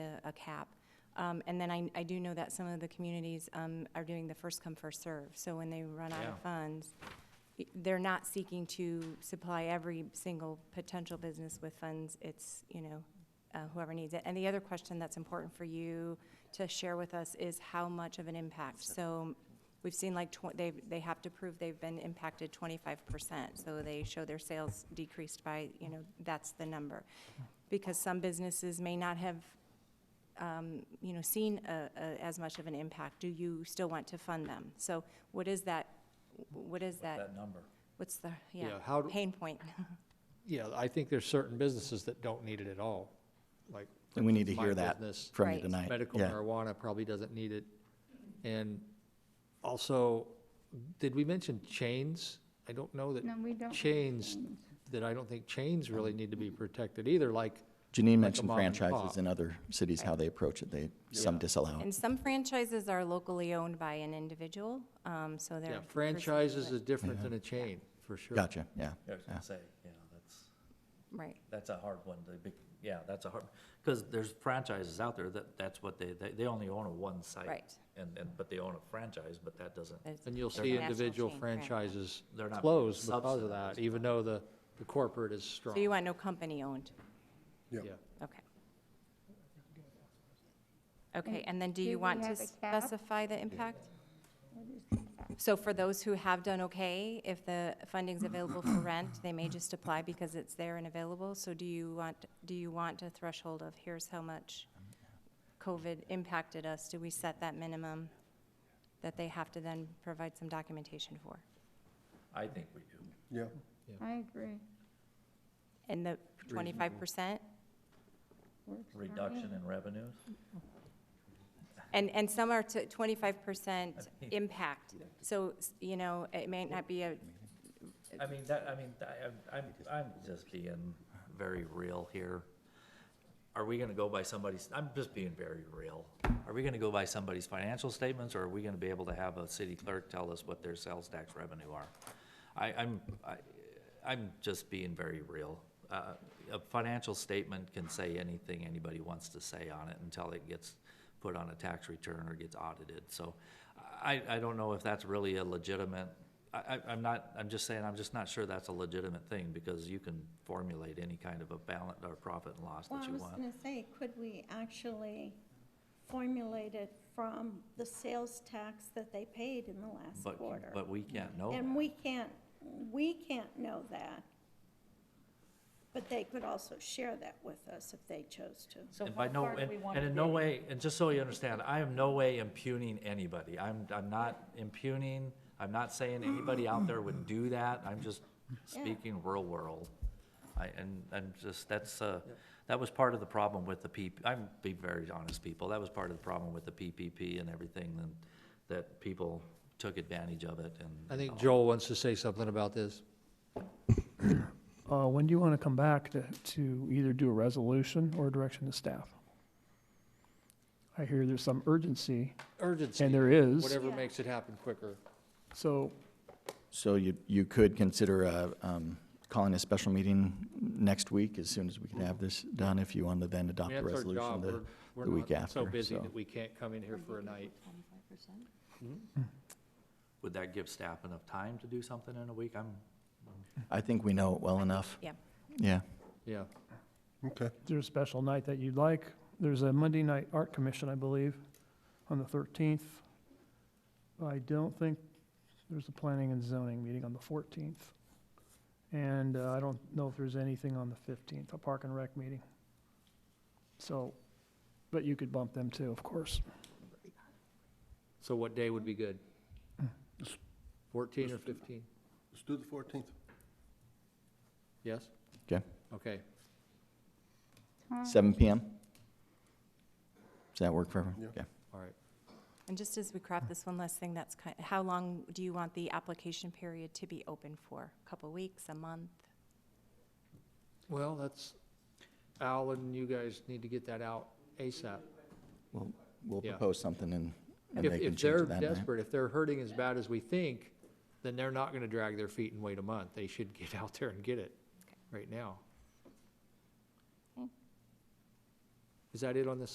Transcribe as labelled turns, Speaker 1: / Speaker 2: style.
Speaker 1: a cap. Um, and then I, I do know that some of the communities, um, are doing the first come, first serve. So when they run out
Speaker 2: Yeah.
Speaker 1: of funds, i- they're not seeking to supply every single potential business with funds. It's, you know, uh, whoever needs it. And the other question that's important for you to share with us is how much of an impact. So we've seen like, tw- they, they have to prove they've been impacted twenty-five percent. So they show their sales decreased by, you know, that's the number. Because some businesses may not have, um, you know, seen a, a, as much of an impact. Do you still want to fund them? So what is that, what is that,
Speaker 2: that number.
Speaker 1: what's the, yeah,
Speaker 3: Yeah, how do-
Speaker 1: pain point?
Speaker 3: Yeah, I think there's certain businesses that don't need it at all, like. for
Speaker 4: And we need to
Speaker 3: instance, my
Speaker 4: hear that
Speaker 3: business,
Speaker 4: from
Speaker 1: Right.
Speaker 4: you tonight.
Speaker 3: Medical
Speaker 4: Yeah.
Speaker 3: marijuana probably doesn't need it. And also, did we mention chains? I don't know that
Speaker 5: No, we don't.
Speaker 3: chains, that I don't think chains really need to be protected either, like,
Speaker 4: Janine
Speaker 3: a
Speaker 4: mentioned
Speaker 3: mom and
Speaker 4: franchises
Speaker 3: pop.
Speaker 4: in other cities, how they approach it. They, some disallow.
Speaker 1: And some franchises are locally owned by an individual, um, so they're.
Speaker 3: yeah,
Speaker 1: pursuing
Speaker 3: franchises
Speaker 1: it.
Speaker 3: is different than a chain, for sure.
Speaker 4: Gotcha, yeah.
Speaker 2: I was gonna say, yeah, that's,
Speaker 1: Right.
Speaker 2: that's a hard one, the big, yeah, that's a hard, because there's franchises out there that, that's what they, they, they only own a one site.
Speaker 1: Right.
Speaker 2: And, and, but they own a franchise, but that doesn't,
Speaker 1: It's-
Speaker 3: And you'll
Speaker 1: it's a
Speaker 3: see
Speaker 1: national
Speaker 3: individual
Speaker 1: chain, right.
Speaker 3: franchises
Speaker 2: They're not
Speaker 3: close because of
Speaker 2: subsidized,
Speaker 3: that, even though the, the corporate is strong.
Speaker 1: So you want no company owned?
Speaker 3: Yeah.
Speaker 1: Okay. Okay, and then do
Speaker 5: do
Speaker 1: you
Speaker 5: we
Speaker 1: want to
Speaker 5: have a cap?
Speaker 1: specify the impact?
Speaker 5: What is the cap?
Speaker 1: So for those who have done okay, if the funding's available for rent, they may just apply because it's there and available. So do you want, do you want a threshold of here's how much COVID impacted us? Do we set that minimum that they have to then provide some documentation for?
Speaker 2: I think we do.
Speaker 6: Yeah,
Speaker 5: I agree.
Speaker 1: And the twenty-five percent?
Speaker 5: Works for me.
Speaker 2: Reduction in revenues,
Speaker 1: And, and some are to twenty-five percent
Speaker 2: I think-
Speaker 1: impact. So, s- you know, it may not be a,
Speaker 2: I mean, that, I mean, I, I'm- I'm, I'm just being very real here. Are we gonna go by somebody's, I'm just being very real. Are we gonna go by somebody's financial statements, or are we gonna be able to have a city clerk tell us what their sales tax revenue are? I, I'm, I, I'm just being very real. Uh, a financial statement can say anything anybody wants to say on it until it gets put on a tax return or gets audited, so I, I don't know if that's really a legitimate, I, I, I'm not, I'm just saying, I'm just not sure that's a legitimate thing, because you can formulate any kind of a balance or profit and loss
Speaker 7: Well,
Speaker 2: that
Speaker 7: I
Speaker 2: you
Speaker 7: was
Speaker 2: want.
Speaker 7: gonna say, could we actually formulate it from the sales tax that they paid in the last
Speaker 2: But,
Speaker 7: quarter?
Speaker 2: but we can't know
Speaker 7: And
Speaker 2: that.
Speaker 7: we can't, we can't know that. But they could also share that with us if they chose to.
Speaker 8: So
Speaker 2: And by
Speaker 8: how
Speaker 2: no,
Speaker 8: far do
Speaker 2: and,
Speaker 8: we want
Speaker 2: and
Speaker 8: to
Speaker 2: in no
Speaker 8: dig?
Speaker 2: way, and just so you understand, I am no way impugning anybody. I'm, I'm not impugning, I'm not saying anybody out there would do that. I'm just speaking real world. I, and, and just, that's, uh, that was part of the problem with the P, I'm be very honest, people. That was part of the problem with the PPP and everything, and that people took advantage of it
Speaker 3: I
Speaker 2: and.
Speaker 3: think Joel wants to say something about this.
Speaker 9: Uh, when do you want to come back to, to either do a resolution or a direction to staff? I hear there's some urgency,
Speaker 3: Urgency.
Speaker 9: and there is,
Speaker 3: Whatever makes it happen quicker.
Speaker 9: so
Speaker 4: So you, you could consider uh, um, calling a special meeting next week as soon as we can have this done, if you want to then
Speaker 3: I
Speaker 4: adopt
Speaker 3: mean,
Speaker 4: the
Speaker 3: that's our
Speaker 4: resolution
Speaker 3: job.
Speaker 4: the,
Speaker 3: We're-
Speaker 4: the
Speaker 3: we're
Speaker 4: week
Speaker 3: not So
Speaker 4: after,
Speaker 3: busy
Speaker 4: so.
Speaker 3: that we can't come in here for a night. Hmm?
Speaker 2: Would that give staff enough time to do something in a week? I'm,
Speaker 4: I think we know it well enough.
Speaker 1: yeah.
Speaker 4: Yeah.
Speaker 3: Yeah.
Speaker 6: okay.
Speaker 9: there's a special night that you'd like. There's a Monday night art commission, I believe, on the thirteenth. I don't think there's a planning and zoning meeting on the fourteenth. And uh, I don't know if there's anything on the fifteenth, a park and rec meeting. So, but you could bump them too, of course.
Speaker 3: So what day would be good? Fourteen or fifteen?
Speaker 6: Let's do the fourteenth.
Speaker 3: Yes?
Speaker 4: Okay.
Speaker 3: Okay.
Speaker 5: Time.
Speaker 4: Seven PM? Does that work for everyone?
Speaker 6: Yeah.
Speaker 4: Okay.
Speaker 3: All right.
Speaker 1: And just as we craft this one last thing, that's kind, how long do you want the application period to be open for? A Couple weeks, a month?
Speaker 3: Well, that's, Al and you guys need to get that out ASAP.
Speaker 4: We'll, we'll
Speaker 3: Yeah.
Speaker 4: propose something and, and
Speaker 3: If,
Speaker 4: they can
Speaker 3: if
Speaker 4: change
Speaker 3: they're
Speaker 4: it that night.
Speaker 3: desperate, if they're hurting as bad as we think, then they're not gonna drag their feet and wait a month. They should get out there and get it right now. Is that it on this